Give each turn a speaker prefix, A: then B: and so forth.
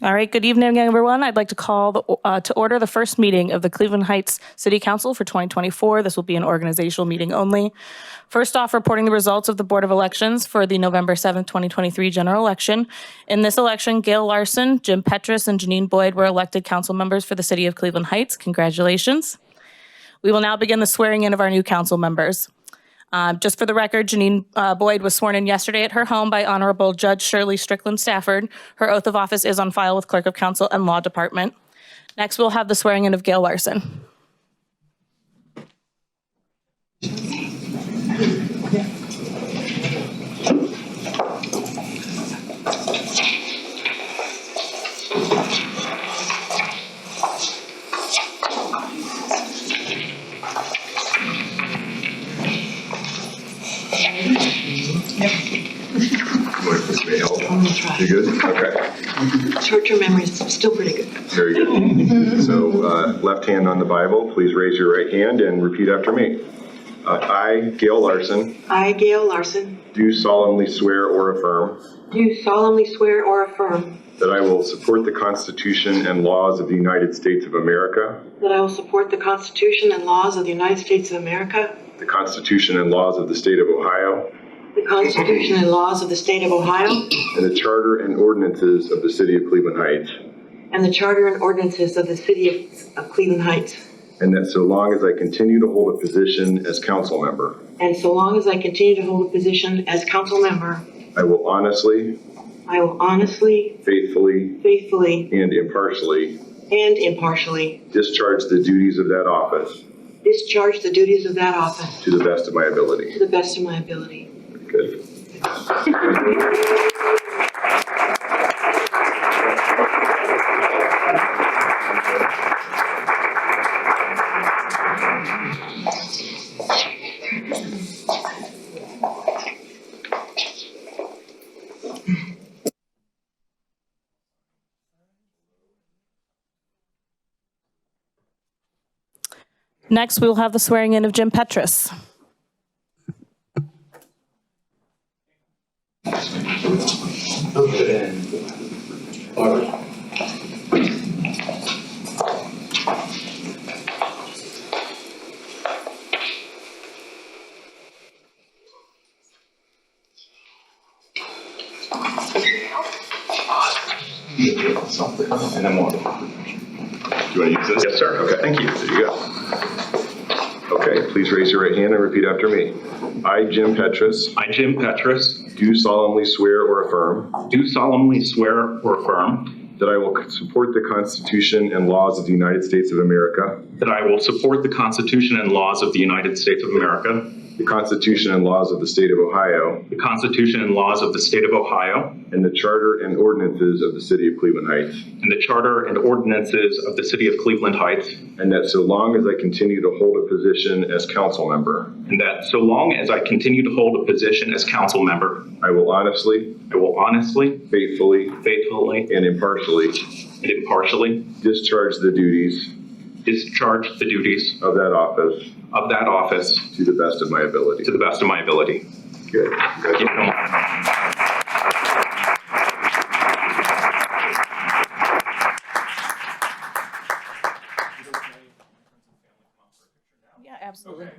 A: All right, good evening, everyone. I'd like to call the- uh, to order the first meeting of the Cleveland Heights City Council for 2024. This will be an organizational meeting only. First off, reporting the results of the Board of Elections for the November 7th, 2023 general election. In this election, Gail Larson, Jim Petrus, and Janine Boyd were elected council members for the City of Cleveland Heights. Congratulations. We will now begin the swearing in of our new council members. Um, Just for the record, Janine uh, Boyd was sworn in yesterday at her home by Honorable Judge Shirley Strickland Stafford. Her oath of office is on file with Clerk of Council and Law Department. Next, we'll have the swearing in of Gail Larson.
B: Want to push me out? You good? Okay,
C: Short-term memory is still pretty good.
B: very good. So, uh, left hand on the Bible, please raise your right hand and repeat after me. Uh, I, Gail Larson,
C: I, Gail Larson,
B: do solemnly swear or affirm
C: do solemnly swear or affirm
B: that I will support the Constitution and laws of the United States of America,
C: that I will support the Constitution and laws of the United States of America,
B: the Constitution and laws of the State of Ohio,
C: the Constitution and laws of the State of Ohio,
B: and the Charter and ordinances of the City of Cleveland Heights,
C: and the Charter and ordinances of the City of- of Cleveland Heights.
B: and that so long as I continue to hold a position as council member,
C: And so long as I continue to hold a position as council member,
B: I will honestly,
C: I will honestly,
B: faithfully,
C: faithfully,
B: and impartially
C: and impartially
B: Discharge the duties of that office
C: discharge the duties of that office
B: to the best of my ability.
C: to the best of my ability.
B: Good.
A: Next, we'll have the swearing in of Jim Petrus.
D: Barbara. Something, and I'm on.
B: Do you want to use this? Yes, sir. Okay, thank you. There you go. Okay, please raise your right hand and repeat after me. I, Jim Petrus,
E: I, Jim Petrus,
B: do solemnly swear or affirm
E: do solemnly swear or affirm
B: that I will support the Constitution and laws of the United States of America,
E: that I will support the Constitution and laws of the United States of America,
B: the Constitution and laws of the State of Ohio,
E: the Constitution and laws of the State of Ohio,
B: and the Charter and ordinances of the City of Cleveland Heights,
E: and the Charter and ordinances of the City of Cleveland Heights,
B: and that so long as I continue to hold a position as council member,
E: and that so long as I continue to hold a position as council member,
B: I will honestly,
E: I will honestly,
B: faithfully,
E: faithfully,
B: and impartially
E: and impartially
B: discharge the duties
E: discharge the duties
B: of that office
E: of that office
B: to the best of my ability.
E: to the best of my ability.
B: Good.
E: Thank you so much.
A: Yeah, absolutely.